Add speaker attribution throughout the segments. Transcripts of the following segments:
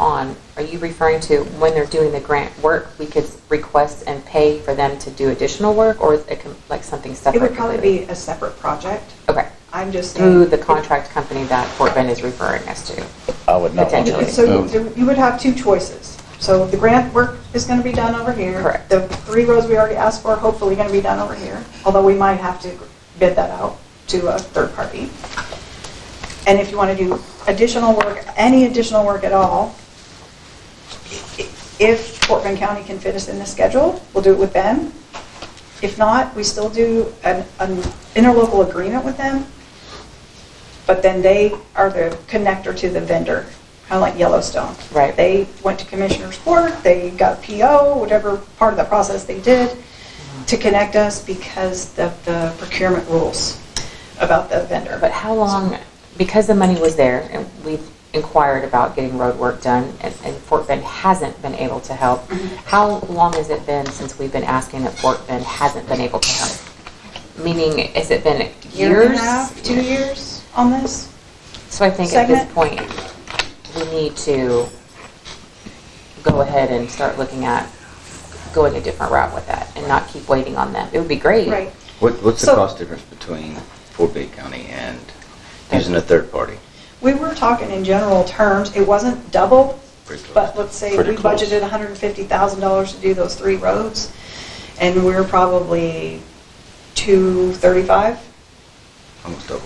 Speaker 1: um, are you referring to when they're doing the grant work, we could request and pay for them to do additional work, or is it com- like something separate?
Speaker 2: It would probably be Mm.
Speaker 1: completely?
Speaker 2: a separate project.
Speaker 1: Okay,
Speaker 2: I'm just saying.
Speaker 1: through the contract company that Fort Bend is referring us to.
Speaker 3: I would not want
Speaker 1: Potentially.
Speaker 3: to.
Speaker 2: So you- you would have two choices. So the grant work is going to be done over here.
Speaker 1: Correct.
Speaker 2: The three roads we already asked for are hopefully going to be done over here, although we might have to bid that out to a third party. And if you want to do additional work, any additional work at all, i- if Fort Bend County can fit us in the schedule, we'll do it with them. If not, we still do an an interlocal agreement with them, but then they are the connector to the vendor, kind of like Yellowstone.
Speaker 1: Right.
Speaker 2: They went to Commissioner's Court, they got PO, whatever part of the process they did, to connect us because of the procurement rules about the vendor.
Speaker 1: But how long, because the money was there, and we've inquired about getting road work done, and and Fort Bend hasn't been able to help,
Speaker 2: Mm-hmm.
Speaker 1: how long has it been since we've been asking that Fort Bend hasn't been able to help? Meaning, has it been
Speaker 2: Year and a
Speaker 1: years?
Speaker 2: half, two years on this?
Speaker 1: So I think at this
Speaker 2: segment?
Speaker 1: point, we need to go ahead and start looking at going a different route with that and not keep waiting on them. It would be great.
Speaker 2: Right.
Speaker 4: What, what's the
Speaker 2: So-
Speaker 4: cost difference between Fort Bend County and using a third party?
Speaker 2: We were talking in general terms, it wasn't double,
Speaker 4: Pretty close.
Speaker 2: but let's say
Speaker 3: Pretty
Speaker 2: we
Speaker 3: close.
Speaker 2: budgeted $150,000 to do those three roads, and we're probably 235
Speaker 4: Almost double.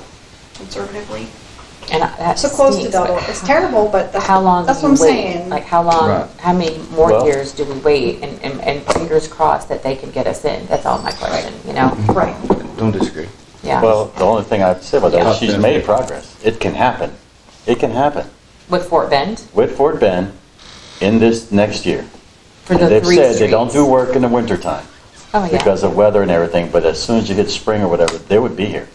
Speaker 2: conservatively.
Speaker 1: And I- that
Speaker 2: So close to
Speaker 1: stinks, but
Speaker 2: double. It's
Speaker 1: how-
Speaker 2: terrible, but that's
Speaker 1: How long do
Speaker 2: that's
Speaker 1: you
Speaker 2: what I'm
Speaker 1: wait?
Speaker 2: saying.
Speaker 1: Like how
Speaker 4: Right.
Speaker 1: long? How many more
Speaker 3: Well-
Speaker 1: years do we wait? And, and, and fingers crossed that they can get us in. That's all my question. You know?
Speaker 2: Right.
Speaker 4: Don't disagree.
Speaker 1: Yeah.
Speaker 3: Mm-hmm. Well, the only thing I'd say about that is she's made
Speaker 4: Confidence.
Speaker 3: progress. It can happen. It can happen.
Speaker 1: with Fort Bend
Speaker 3: With Fort Bend in this next year.
Speaker 1: for the
Speaker 3: And they've
Speaker 1: three
Speaker 3: said they don't do
Speaker 1: streets.
Speaker 3: work in the wintertime
Speaker 1: Oh yeah.
Speaker 3: because of weather and everything, but as soon as you hit spring or whatever, they would be here.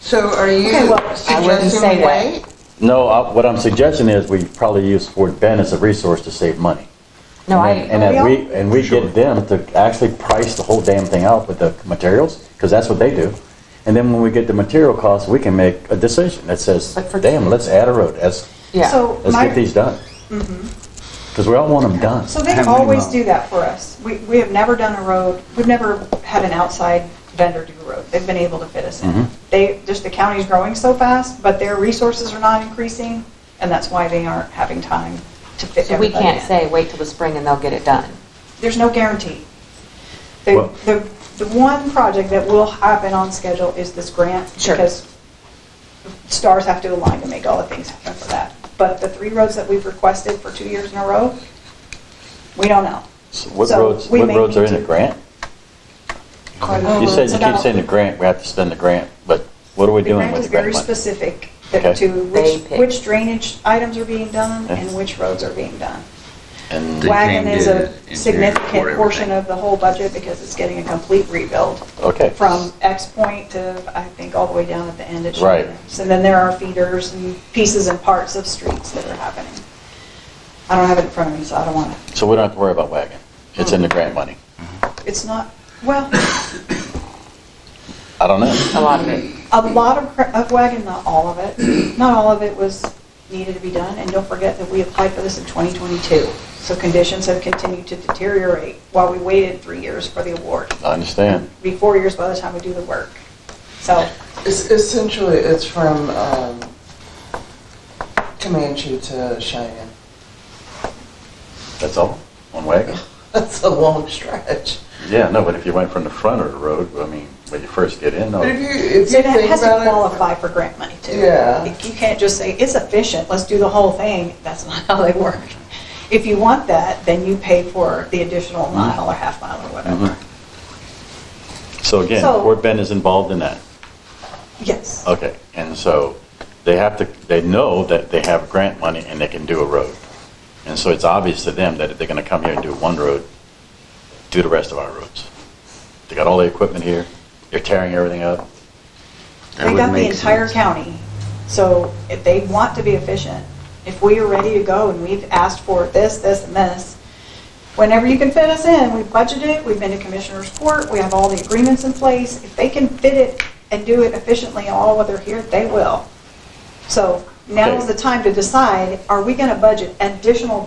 Speaker 5: So are you
Speaker 2: Okay, well,
Speaker 1: I wouldn't
Speaker 5: suggesting
Speaker 1: say
Speaker 5: we
Speaker 1: that.
Speaker 5: wait?
Speaker 3: No, I- what I'm suggesting is we probably use Fort Bend as a resource to save money.
Speaker 1: no, I.
Speaker 3: And that
Speaker 2: Well, we
Speaker 3: we, and we
Speaker 4: Sure.
Speaker 3: get them to actually price the whole damn thing out with the materials, because that's what they do. And then when we get the material costs, we can make a decision that says,
Speaker 1: But for-
Speaker 3: damn, let's add a road, let's,
Speaker 1: yeah.
Speaker 2: So
Speaker 3: let's
Speaker 2: my-
Speaker 3: get these done.
Speaker 1: Mm-hmm.
Speaker 3: Because we all want them done.
Speaker 2: So they
Speaker 4: How many
Speaker 2: always
Speaker 4: miles?
Speaker 2: do that for us. We, we have never done a road, we've never had an outside vendor do a road. They've been able to fit us
Speaker 3: Mhm.
Speaker 2: in.
Speaker 4: Mm-hmm.
Speaker 2: They, just the county's growing so fast, but their resources are not increasing, and that's why they aren't having time to fit
Speaker 1: so we
Speaker 2: everybody
Speaker 1: can't
Speaker 2: in.
Speaker 1: say wait till the spring and they'll get it done.
Speaker 2: There's no guarantee. The,
Speaker 3: Well-
Speaker 2: the, the one project that will happen on schedule is this grant.
Speaker 1: Sure.
Speaker 2: Because stars have to align to make all the things happen for that. But the three roads that we've requested for two years in a row, we don't know.
Speaker 3: So What
Speaker 2: so
Speaker 3: roads,
Speaker 2: we
Speaker 3: what
Speaker 2: may
Speaker 3: roads are
Speaker 2: need
Speaker 3: in the
Speaker 2: to-
Speaker 3: grant?
Speaker 2: Oh,
Speaker 3: You said,
Speaker 2: it's
Speaker 3: you keep
Speaker 2: about-
Speaker 3: saying the grant, we have to spend the grant, but what are we
Speaker 2: The
Speaker 3: doing
Speaker 2: grant
Speaker 3: with
Speaker 2: is
Speaker 3: the grant
Speaker 2: very
Speaker 3: money?
Speaker 2: specific
Speaker 3: Okay.
Speaker 2: that- to
Speaker 1: They
Speaker 2: which
Speaker 1: pick.
Speaker 2: which drainage items are being done
Speaker 3: Yeah.
Speaker 2: and which roads are being done.
Speaker 3: And-
Speaker 4: They
Speaker 2: Wagon
Speaker 4: came
Speaker 2: is
Speaker 4: to
Speaker 2: a
Speaker 4: engineer for
Speaker 2: significant portion
Speaker 4: everything.
Speaker 2: of the whole budget because it's getting a complete rebuild.
Speaker 3: Okay.
Speaker 2: From X point to, I think, all the way down at the end at
Speaker 3: Right.
Speaker 2: Shannon's. And then there are feeders and pieces and parts of streets that are happening. I don't have it in front of me, so I don't want to,
Speaker 3: So we don't have to worry about wagon. It's
Speaker 1: Mm-hmm.
Speaker 3: in the grant money.
Speaker 2: it's not, well,
Speaker 3: I don't know.
Speaker 1: A lot of it.
Speaker 2: a lot of cra- of wagon, not all of it, not all of it was needed to be done. And don't forget that we applied for this in 2022. So conditions have continued to deteriorate while we waited three years for the award.
Speaker 3: I understand.
Speaker 2: be four years by the time we do the work. So,
Speaker 5: It's essentially, it's from um, Comanche to Cheyenne.
Speaker 3: That's all? One wagon?
Speaker 5: That's a long stretch.
Speaker 3: Yeah, no, but if you went from the front of the road, I mean, when you first get in, no.
Speaker 5: But if you, if you
Speaker 2: it
Speaker 5: think
Speaker 2: has to
Speaker 5: about
Speaker 2: qualify for grant money too.
Speaker 5: Yeah.
Speaker 2: You can't just say, it's efficient, let's do the whole thing. That's not how they work. If you want that, then you pay for the additional mile or half mile or whatever.
Speaker 3: Mhm. So again,
Speaker 2: So-
Speaker 3: Fort Bend is involved in that.
Speaker 2: Yes.
Speaker 3: Okay, and so they have to, they know that they have grant money and they can do a road. And so it's obvious to them that if they're gonna come here and do one road, do the rest of our roads. They got all the equipment here, they're tearing everything up.
Speaker 4: it. That
Speaker 2: They
Speaker 4: would
Speaker 2: got the
Speaker 4: make
Speaker 2: entire
Speaker 4: sense.
Speaker 2: county. So if they want to be efficient, if we are ready to go and we've asked for this, this, and this, whenever you can fit us in, we've budgeted, we've been to commissioner's court, we have all the agreements in place. If they can fit it and do it efficiently all while they're here, they will. So now is
Speaker 3: Okay.
Speaker 2: the time to decide, are we going to budget additional